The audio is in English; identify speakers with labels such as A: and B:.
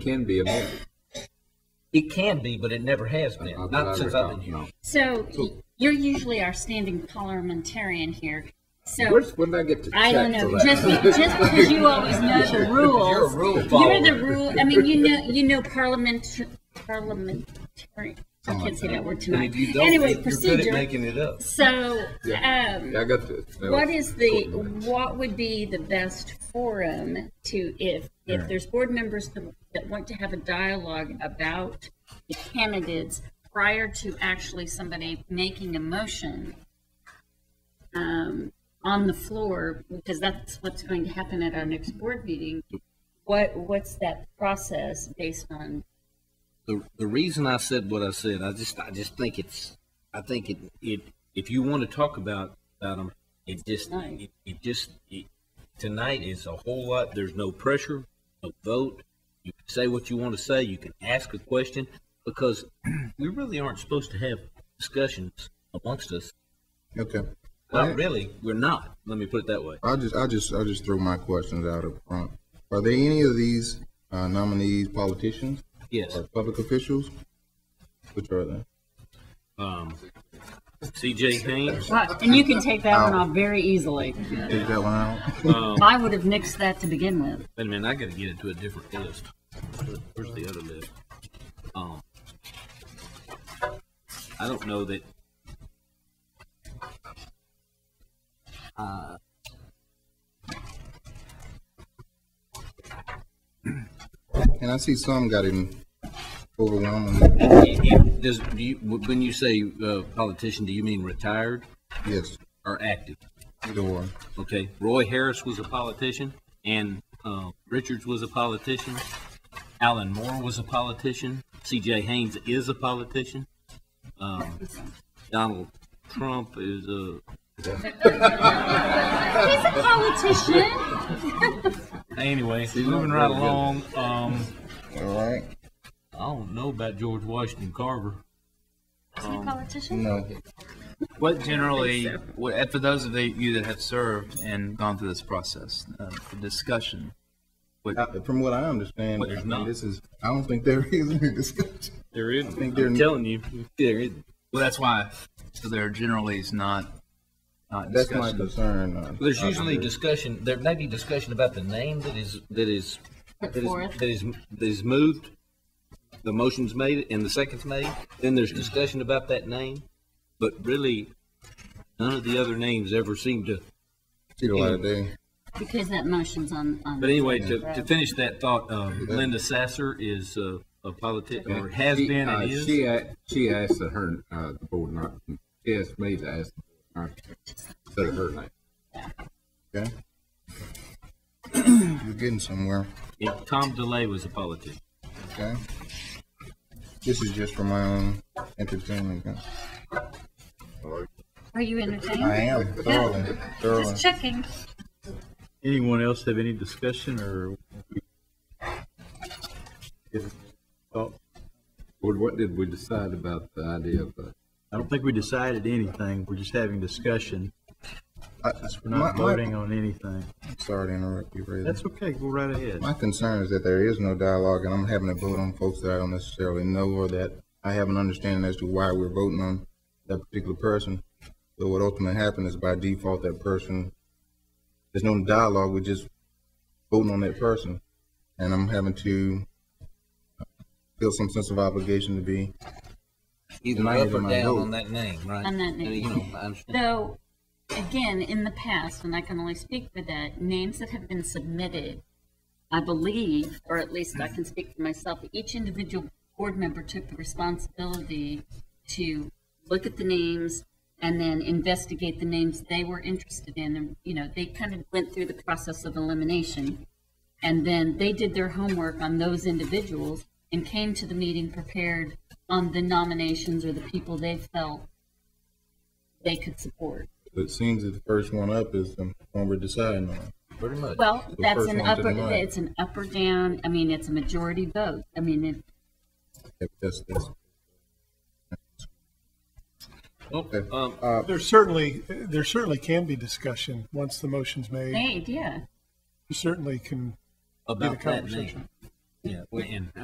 A: can be amended.
B: It can be, but it never has been,
A: I- I- I
B: not since I've been here.
A: recall, no.
C: So you're usually our standing parliamentarian here. So
A: Where's, when did I get to check
C: I don't
A: for
C: know,
A: that?
C: just, be- just because you always know the
B: You're
C: rules.
B: a rule
C: You're the
B: follower.
C: rule, I mean, you know, you know parliament, parliamentary, I can't say that word
B: And
C: tonight.
B: if you don't,
C: Anyway,
B: you're good at
C: procedure.
B: making it up.
C: So,
A: Yeah.
C: um,
A: Yeah, I got this. That
C: What
A: was
C: is the,
A: cool.
C: what would be the best forum to, if, if there's board members that- that want to have a dialogue about the candidates prior to actually somebody making a motion um, on the floor, because that's what's going to happen at our next board meeting, what, what's that process based on?
D: the the reason I said what I said, I just I just think it's I think it it if you want to talk about about them, it just
C: Right.
D: it, it just it, tonight is a whole lot. There's no pressure, no vote. You can say what you want to say. You can ask a question because we really aren't supposed to have discussions amongst us.
E: Okay.
D: Not really. We're not. Let me put it that way.
E: I'll just, I'll just, I'll just throw my questions out up front. Are there any of these uh, nominees politicians
D: Yes.
E: or public officials? Which are they?
D: Um, C.J. Haynes.
C: And you can take that one off very easily.
E: Take that one out.
C: I would have nixed that to begin with.
D: Wait a minute. I got to get it to a different list. Where's the other list? Um, I don't know that. Uh,
E: And I see some got him overwhelming.
D: it- it- does do you, when you say uh, politician, do you mean retired
E: Yes,
D: or active?
E: either one.
D: Okay, Roy Harris was a politician, and uh, Richards was a politician. Alan Moore was a politician. C.J. Haynes is a politician. Um, Donald Trump is a
C: He's a politician.
D: Anyway, moving right along. Um,
E: All right.
D: I don't know about George Washington Carver.
C: politician?
E: No.
F: What generally, what, and for those of you that have served and gone through this process, uh, the discussion, what,
E: I- From what I understand,
D: But
E: I
D: there's
E: mean,
D: not.
E: this is, I don't think there is any discussion.
D: There is.
E: think they're-
D: I'm telling you, there is.
F: well, that's why, so there generally is not, not
E: That's my
F: discussion.
E: concern. uh,
D: There's
E: I- I
D: usually
E: agree.
D: discussion. There may be discussion about the name that is that is
C: Put
D: that is,
C: forth.
D: that is that is moved. The motion's made and the second's made. Then there's discussion about that name, but really, none of the other names ever seem to
E: See the light of day.
C: Because that motion's on, on.
D: But anyway, to, to finish that thought, um, Linda Sasser is uh, a politic, or has
A: She-
D: been
A: uh,
D: and is.
A: She, a- she asked that her, uh, the board not, she asked me to ask the board not to consider her name.
E: Okay. You're getting somewhere.
D: Yeah, Tom DeLay was a politic.
E: Okay. This is just for my own entertainment. guys.
C: Are you entertained?
E: I am thoroughly, thoroughly.
C: Just checking.
G: Anyone else have any discussion or? If- oh,
A: Board, what did we decide about the idea of uh, the
G: I don't think we decided anything. We're just having discussion.
E: I-
G: We're not
E: my- my-
G: voting on anything.
E: Sorry to interrupt you, Ray.
G: That's okay. Go right ahead.
E: My concern is that there is no dialogue, and I'm having to vote on folks that I don't necessarily know or that I have an understanding as to why we're voting on that particular person. So what ultimately happens is by default, that person, there's no dialogue, we're just voting on that person. And I'm having to feel some sense of obligation to be,
D: Either
E: Might
D: up
E: have
D: or
E: my
D: down
E: vote.
D: on that name, right?
C: On that name.
D: You know, I understand.
C: Though, again, in the past, and I can only speak for that, names that have been submitted, I believe, or at least I can speak for myself, each individual board member took the responsibility to look at the names and then investigate the names they were interested in. And, you know, they kind of went through the process of elimination. And then they did their homework on those individuals and came to the meeting prepared on the nominations or the people they felt they could support.
E: but it seems that the first one up is the one we're deciding on.
D: Pretty much.
C: Well,
E: The
C: that's
E: first
C: an
E: one to the
C: upper,
E: right.
C: it's an up or down, I mean, it's a majority vote. I mean, if,
E: If That's, that's,
D: Well,
E: okay.
D: um,
H: There certainly, there certainly can be discussion once the motion's made.
C: made, yeah.
H: You certainly can be the
D: about that name.
H: conversation.
D: Yeah, we- and